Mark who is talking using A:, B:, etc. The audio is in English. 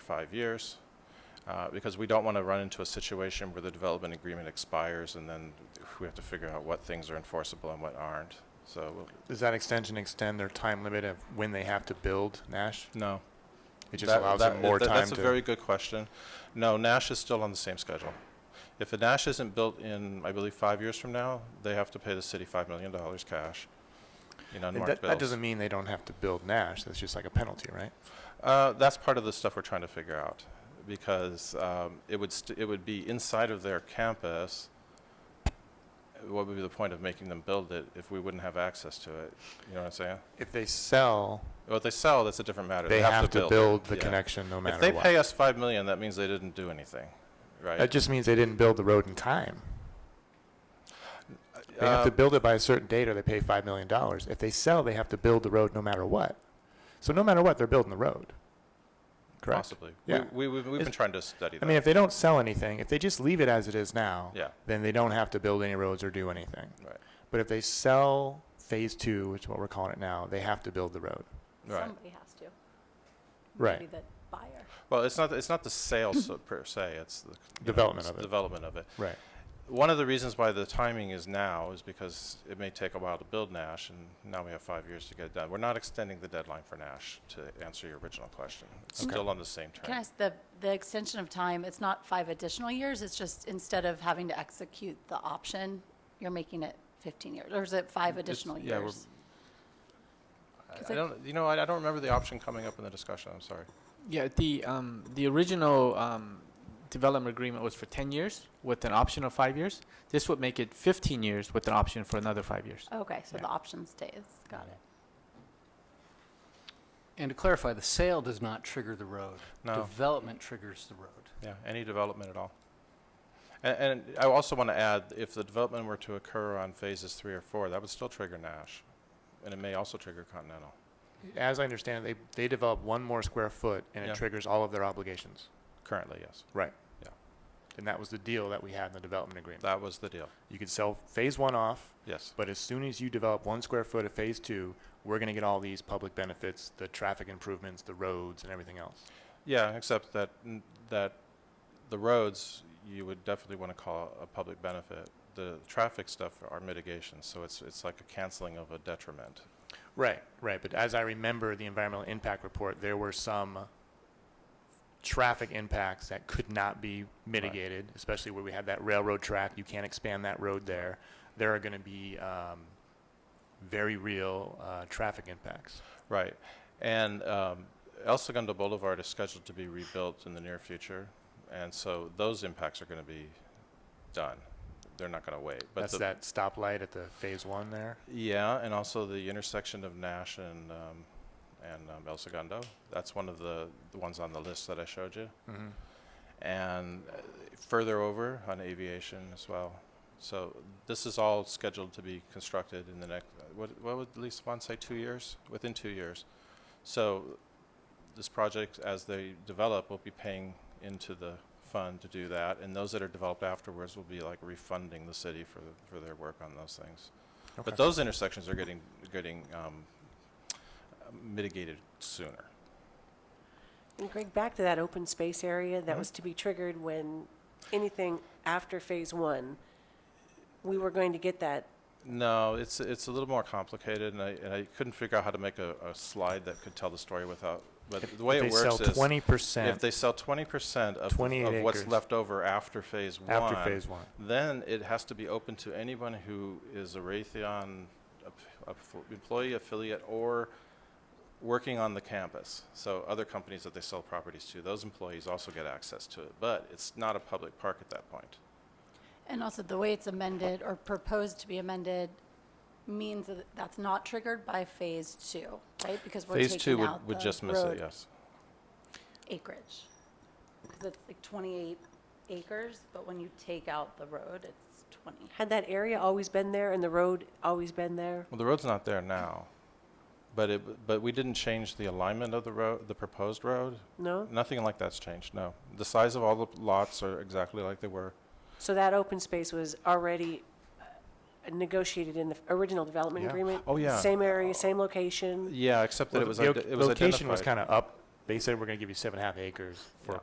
A: five years, uh, because we don't want to run into a situation where the development agreement expires and then we have to figure out what things are enforceable and what aren't. So, we'll-
B: Does that extension extend their time limit of when they have to build Nash?
A: no.
B: It just
A: That-
B: allows
A: that-
B: them more
A: that-
B: time
A: That's a
B: to.
A: very good question. No, Nash is still on the same schedule. If a Nash isn't built in, I believe, five years from now, they have to pay the city $5 million cash in
B: And
A: unmarked
B: that,
A: bills.
B: that doesn't mean they don't have to build Nash. That's just like a penalty, right?
A: Uh, that's part of the stuff we're trying to figure out, because um, it would st- it would be inside of their campus. What would be the point of making them build it if we wouldn't have access to it? You know what I'm saying?
B: If they sell,
A: Well, if they sell, that's a different matter.
B: they have to build the
A: Yeah.
B: connection no
A: If they
B: matter
A: pay
B: what.
A: us five million, that means they didn't do anything,
B: That
A: right?
B: just means they didn't build the road in time. They have to
A: Uh,
B: build it by a certain date or they pay $5 million. If they sell, they have to build the road no matter what. So no matter what, they're building the road. Correct?
A: Possibly.
B: Yeah.
A: We, we, we've been
B: It's-
A: trying to study that.
B: I mean, if they don't sell anything, if they just leave it as it is now,
A: Yeah.
B: then they don't have to build any roads or do anything.
A: Right.
B: But if they sell phase two, which is what we're calling it now, they have to build the road.
A: Right.
C: Somebody has to.
B: Right.
C: Maybe the buyer.
A: Well, it's not, it's not the sales so- per se, it's the. you know,
B: Development
A: it's
B: of it.
A: Development of it.
B: Right.
A: One of the reasons why the timing is now is because it may take a while to build Nash, and now we have five years to get it done. We're not extending the deadline for Nash, to answer your original question. It's
B: Okay.
A: still on the same
C: Can I,
A: term.
C: ask the, the extension of time, it's not five additional years, it's just instead of having to execute the option, you're making it 15 years, or is it five additional
A: yeah, we're-
C: years?
A: I-
C: Because
A: I
C: I-
A: don't, you know, I I don't remember the option coming up in the discussion, I'm sorry.
D: Yeah, the um, the original um, development agreement was for 10 years with an option of five years. This would make it 15 years with an option for another five years.
C: Okay, so
D: Yeah.
C: the option stays, got it.
E: And to clarify, the sale does not trigger the road.
A: No,
E: Development triggers the road.
A: yeah, any development at all. And, and I also want to add, if the development were to occur on phases three or four, that would still trigger Nash, and it may also trigger Continental.
B: As I understand it, they, they develop one more square foot and
A: Yeah.
B: it triggers all of their obligations.
A: Currently, yes.
B: And that was the deal that we had in the development agreement.
A: That was the deal,
B: You could sell phase one off,
A: yes.
B: but as soon as you develop one square foot of phase two, we're going to get all these public benefits, the traffic improvements, the roads, and everything else.
A: Yeah, except that, n- that the roads, you would definitely want to call a public benefit. The traffic stuff are mitigations, so it's, it's like a canceling of a detriment.
B: Right, right. But as I remember the environmental impact report, there were some traffic impacts that could not be mitigated, especially where we had that railroad track. You can't expand that road there. There are going to be um, very real uh, traffic impacts.
A: Right. And um, El Segundo Boulevard is scheduled to be rebuilt in the near future, and so those impacts are going to be done. They're not going to wait. But
B: That's
A: the-
B: that stoplight at the phase one there.
A: Yeah, and also the intersection of Nash and, um, and um, El Segundo. That's one of the, the ones on the list that I showed you.
B: Mm-hmm.
A: and uh, further over on aviation as well. So this is all scheduled to be constructed in the next, what, what would Lisa Swan say, two years? Within two years. So this project, as they develop, will be paying into the fund to do that, and those that are developed afterwards will be like refunding the city for, for their work on those things. But those intersections are getting, getting um, mitigated sooner.
F: And Greg, back to that open space area
A: Mm-hmm.
F: that was to be triggered when anything after phase one, we were going to get that.
A: No, it's, it's a little more complicated, and I, and I couldn't figure out how to make a, a slide that could tell the story without, but the way
B: if
A: it
B: they sell
A: works is,
B: twenty
A: if
B: percent
A: they sell twenty percent of,
B: 28
A: of what's
B: acres.
A: left over after phase one,
B: after phase one.
A: then it has to be open to anyone who is a Raytheon aff- aff- employee affiliate or working on the campus. So other companies that they sell properties to, those employees also get access to it, but it's not a public park at that point. Mm-hmm.
C: And also, the way it's amended or proposed to be amended means that that's not triggered by phase two, right? Because we're
A: Phase two
C: taking
A: would,
C: out
A: would
C: the
A: just miss it,
C: road
A: yes.
C: acreage. Because it's like 28 acres, but when you take out the road, it's 20.
F: Had that area always been there and the road always been there?
A: Well, the road's not there now, but it, but we didn't change the alignment of the road, the proposed road.
F: No?
A: Nothing like that's changed, no. The size of all the lots are exactly like they were.
F: So that open space was already uh, negotiated in the original development
B: Yeah.
F: agreement?
A: Oh, yeah.
F: Same area, same location?
A: Yeah, except that
B: Well,
A: it was,
B: the
A: ide-
B: loc-
A: it was
B: location was
A: identified.
B: kind of up They said we're going to give you seven and a half acres for
A: Yeah.